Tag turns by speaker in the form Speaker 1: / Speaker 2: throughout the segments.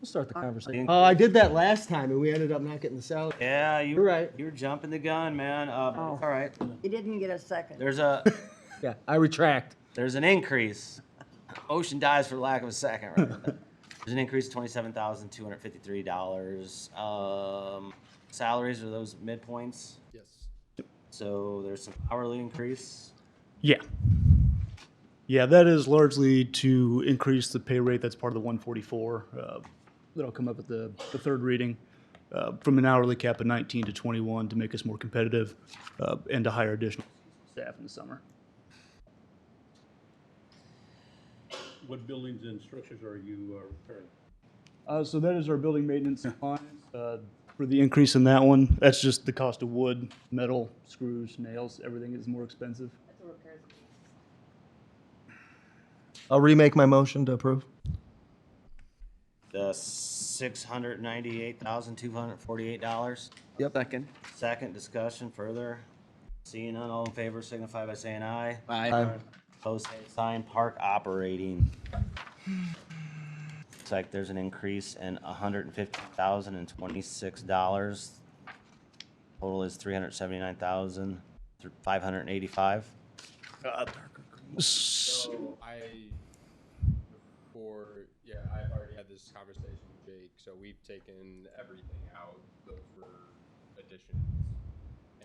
Speaker 1: We'll start the conversation.
Speaker 2: Oh, I did that last time and we ended up not getting the salary.
Speaker 3: Yeah, you,
Speaker 2: You're right. Oh.
Speaker 3: You're jumping the gun, man. Uh, but it's All right.
Speaker 4: You didn't get a second.
Speaker 3: There's a
Speaker 2: Yeah, I retract.
Speaker 3: there's an increase. Ocean dies for lack of a second. Right? There's an increase of twenty-seven thousand two hundred fifty-three dollars. Um, salaries are those midpoints. Yes. So there's some hourly increase.
Speaker 5: Yeah. Yeah, that is largely to increase the pay rate. That's part of the 144. Uh, that'll come up at the, the third reading uh, from an hourly cap of 19 to 21 to make us more competitive uh, and to hire additional staff in the summer.
Speaker 6: What buildings and structures are you uh, repairing?
Speaker 5: Uh, so that is our building maintenance line. Uh, for the increase in that one, that's just the cost of wood, metal, screws, nails, everything is more expensive.
Speaker 2: I'll remake my motion to approve.
Speaker 3: The six hundred ninety-eight thousand two hundred forty-eight dollars.
Speaker 1: Yep. Second.
Speaker 3: Second discussion further. Seeing none, all in favor signify by saying aye.
Speaker 1: Aye.
Speaker 3: Post same sign, park operating. Looks like there's an increase in hundred and fifty thousand and twenty-six dollars. Total is three hundred seventy-nine thousand, five hundred and eighty-five.
Speaker 7: So I, for, yeah, I've already had this conversation with Jake, so we've taken everything out, those were additions.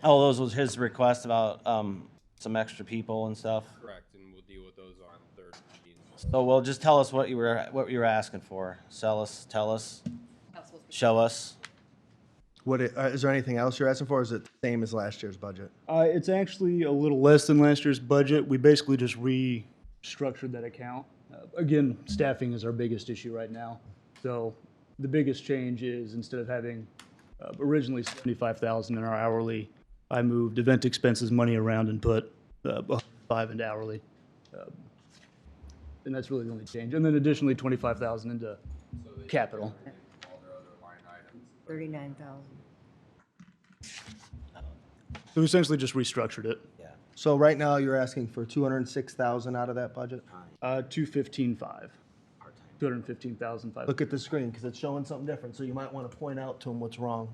Speaker 3: Oh, those was his request about, um, some extra people and stuff.
Speaker 7: Correct, and we'll deal with those on third meeting.
Speaker 3: So, well, just tell us what you were, what you were asking for. Sell us, tell us, show us.
Speaker 2: What, i- uh, is there anything else you're asking for? or Is it the same as last year's budget?
Speaker 5: Uh, it's actually a little less than last year's budget. We basically just restructured that account. Uh, again, staffing is our biggest issue right now. So the biggest change is instead of having uh, originally seventy-five thousand in our hourly, I moved event expenses money around and put uh, five into hourly. Uh, and that's really the only change. And then additionally, twenty-five thousand into capital.
Speaker 4: Thirty-nine thousand.
Speaker 5: So we essentially just restructured it.
Speaker 2: So right now you're asking for two hundred and six thousand out of that budget?
Speaker 5: Uh, two fifteen five. Two hundred fifteen thousand five.
Speaker 2: Look at the screen because it's showing something different. So you might want to point out to them what's wrong.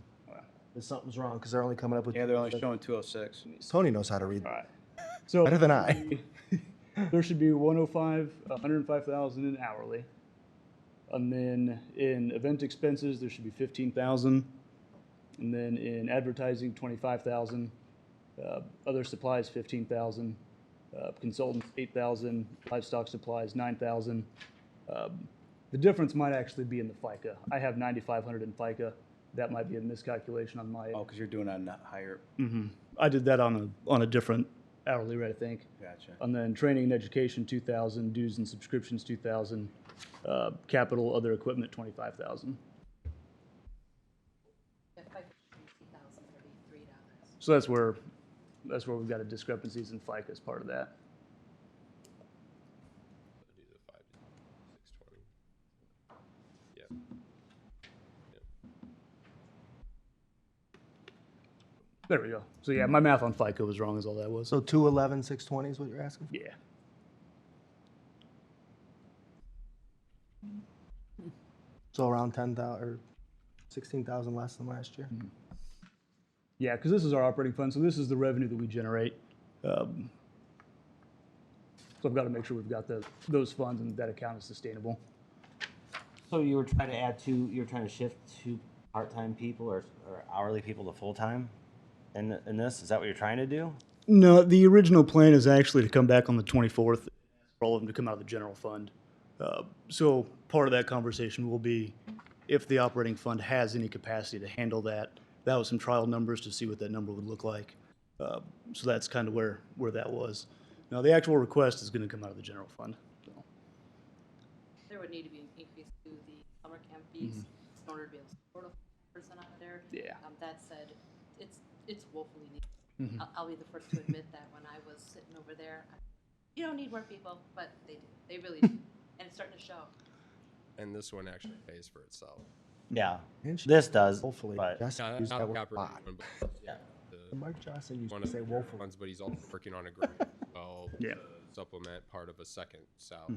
Speaker 2: If something's wrong because they're only coming up with.
Speaker 8: Yeah, they're only showing 206.
Speaker 2: Tony knows how to read
Speaker 5: So
Speaker 2: better than I.
Speaker 5: there should be 105, 105,000 in hourly. And then in event expenses, there should be 15,000. And then in advertising, 25,000. Uh, other supplies, 15,000. Uh, consultants, 8,000. Livestock supplies, 9,000. Um, the difference might actually be in the FICA. I have 9,500 in FICA. That might be a miscalculation on my end.
Speaker 8: Oh, because you're doing on a higher,
Speaker 5: I did that on a on a different hourly rate, I think.
Speaker 8: gotcha.
Speaker 5: And then training and education, two thousand, dues and subscriptions, two thousand, uh, capital, other equipment, twenty-five thousand. So that's where, that's where we've got a discrepancies in FICA as part of that.
Speaker 7: Do the five, six twenty. Yep.
Speaker 5: There we go. So yeah, my math on FICA was wrong is all that was.
Speaker 2: So two eleven six twenty is what you're asking?
Speaker 5: Yeah.
Speaker 2: So around ten thousand or sixteen thousand less than last year.
Speaker 5: Yeah, because this is our operating fund, so this is the revenue that we generate. Um, So I've got to make sure we've got the, those funds and that account is sustainable.
Speaker 3: So you were trying to add two, you were trying to shift two part-time people or, or hourly people to full-time? In, in this, is that what you're trying to do?
Speaker 5: No, the original plan is actually to come back on the 24th, for all of them to come out of the general fund. Uh, So part of that conversation will be if the operating fund has any capacity to handle that. That was some trial numbers to see what that number would look like. Uh, So that's kind of where, where that was. Now, the actual request is going to come out of the general fund. so.
Speaker 9: There would need to be an increase to the summer camp fees in order to be able to support a full person out there.
Speaker 5: Yeah.
Speaker 9: Um, that said, it's, it's woefully needed. I'll, I'll be the first to admit that when I was sitting over there, I- you don't need more people, but they do, they really do. And it's starting to show.
Speaker 7: And this one actually pays for itself.
Speaker 3: Yeah,
Speaker 2: And she-
Speaker 3: this does.
Speaker 2: Hopefully,
Speaker 3: but-
Speaker 2: Jess
Speaker 7: Not-
Speaker 2: used
Speaker 7: not
Speaker 2: that
Speaker 7: the
Speaker 2: word a
Speaker 7: operating
Speaker 2: lot.
Speaker 7: one, but the-
Speaker 2: Mike Johnson used
Speaker 7: one
Speaker 2: to
Speaker 7: of
Speaker 2: say
Speaker 7: the
Speaker 2: woefully.
Speaker 7: ones, but he's also working on a grant, as well,
Speaker 5: Yeah.
Speaker 2: Hmm.
Speaker 7: to supplement part of a second salary.